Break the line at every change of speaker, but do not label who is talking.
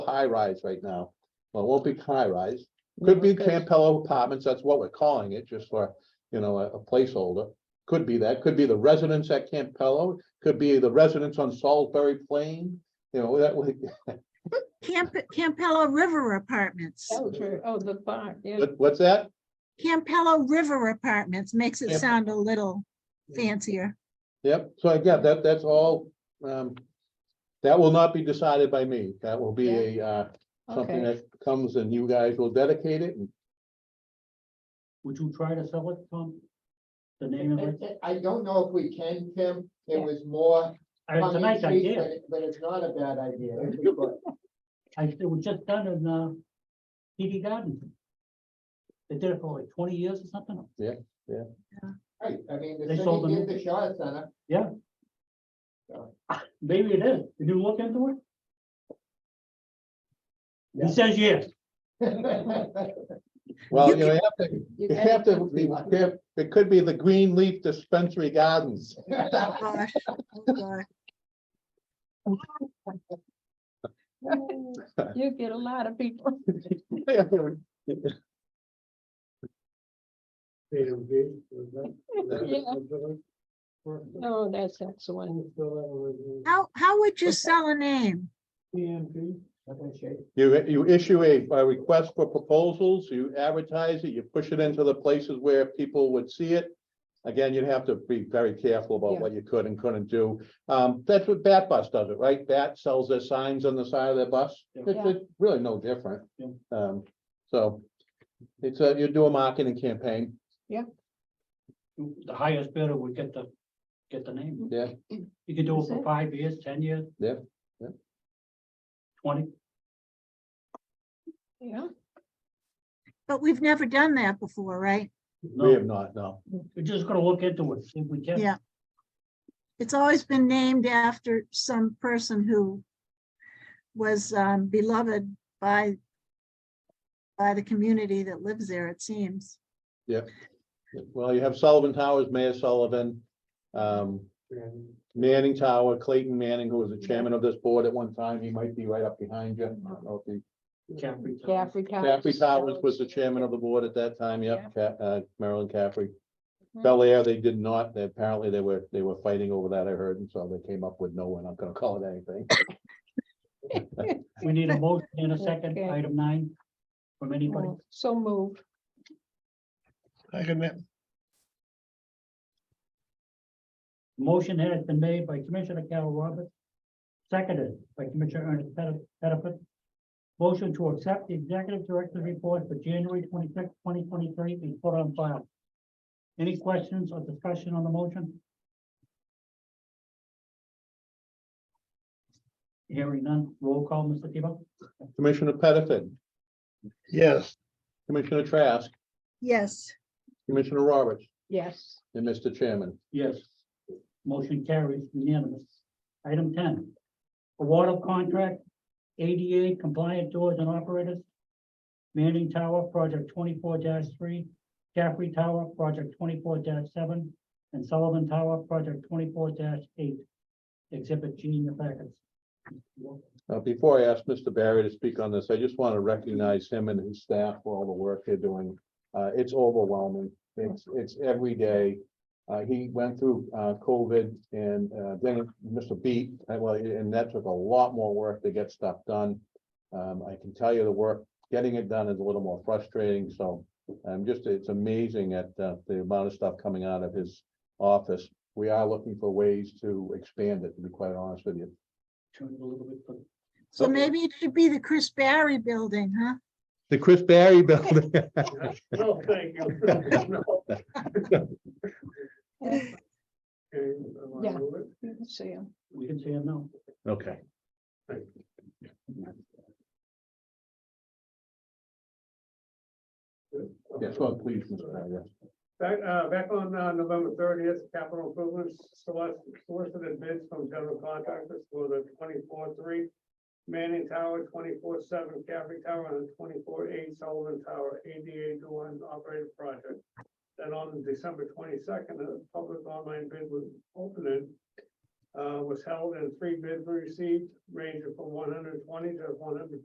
high rise right now. Well, it won't be high rise. Could be Campello Apartments, that's what we're calling it, just for, you know, a a placeholder. Could be that, could be the residents at Campello, could be the residents on Salisbury Plain, you know, that would,
Camp, Campello River Apartments.
Oh, true. Oh, the barn, yeah.
what- what's that?
Campello River Apartments makes it
Camp-
sound a little fancier.
Yep, so again, that, that's all, um, that will not be decided by me. That will be a, uh, something
Okay.
that comes and you guys will dedicate it and
Would you try to sell it, Tom? The name of it?
I don't know if we can, Tim, it
Yeah.
was more.
I- It's a
tongue in
nice
cheek, but
idea.
it- But it's not a bad idea. if we could.
I, it was just done in, uh, TD Garden. They did it for like twenty years or something.
Right, I mean, the
They sold
city
them.
did the shot center,
Maybe it is. Did you look into it?
Yeah.
He says yes.
Well,
You
you know, you have to, you
gotta
have to, be caref- it could be the Green Leaf Dispensary Gardens.
Gosh, oh gosh.
You get a lot of people. Yeah. Oh, that's excellent.
How, how would you sell a name?
Nothing shaky.
You, you issue a, a request for proposals, you advertise it, you push it into the places where people would see it. Again, you'd have to be very careful about
Yeah.
what you could and couldn't do. Um, that's what Bat Bus does it, right? Bat sells their signs on the side of their bus. It's,
Yeah.
it's really no different.
Yeah.
Um, so it's a, you do a marketing campaign.
The highest bidder would get the, get the name.
Yeah,
You could do it
Is
for
it?
five years, ten years.
Yeah, yeah.
Twenty.
Yeah.
But we've never done that before, right?
we
No,
have not, no.
we're just gonna look into it, see if we can.
Yeah. It's always been named after some person who was um, beloved by by the community that lives there, it seems.
Well, you have Sullivan Towers, Mayor Sullivan, um, Manning Tower, Clayton Manning, who was the chairman of this board at one time. He might be right up behind you. I don't know if he-
Caffrey.
Caffrey Towers.
Caffrey Towers was the chairman of the board at that time.
Yeah.
Yep, Ca- uh, Marilyn Caffrey.
Mhm.
Bel Air, they did not. They- Apparently they were, they were fighting over that, I heard, and so they came up with no, we're not gonna call it anything.
We need a motion in a second,
Okay.
item nine, from anybody.
Oh, So moved.
Motion has been made by Commissioner Carol Roberts, seconded by Commissioner Ernest Petti- Pettifat. Motion to accept the executive director's report for January twenty-sixth, twenty twenty-three be put on file. Any questions or discussion on the motion? Hearing none, roll call, Mr. Tebow?
Commissioner Pettifat,
Yes,
Commissioner Trask,
Yes.
Commissioner Roberts,
Yes.
and Mr. Chairman.
Yes. Motion carries unanimous. Item ten. Award of contract ADA compliant doors and operators. Manning Tower, project twenty-four three, Caffrey Tower, project twenty-four seven, and Sullivan Tower, project twenty-four eight. Exhibit G in your packets.
Uh, before I ask Mr. Barry to speak on this, I just want to recognize him and his staff for all the work they're doing. Uh, it's overwhelming. It's, it's every day. Uh, he went through, uh, COVID and, uh, then Mr. Beat, uh, well, and that took a lot more work to get stuff done. Um, I can tell you the work, getting it done is a little more frustrating, so um just, it's amazing at, uh, the amount of stuff coming out of his office. We are looking for ways to expand it, to be quite honest with you.
Turn it a little bit. for-
So
Okay.
maybe it should be the Chris Barry Building, huh?
The Chris Barry Building.
No, thank you.
Yeah,
Yeah.
you can see 'em.
We can say no.
Okay. Yes, well, please, Mr. Barry, yes.
Back, uh, back on, uh, November thirtieth, capital improvements, select, solicited bids from general contractors for the twenty-four three. Manning Tower, twenty-four seven, Caffrey Tower, and twenty-four eight Sullivan Tower, ADA dual and operated project. Then on December twenty-second, a public online bid was opened, uh, was held and three bids were received, ranging from one hundred twenty to one hundred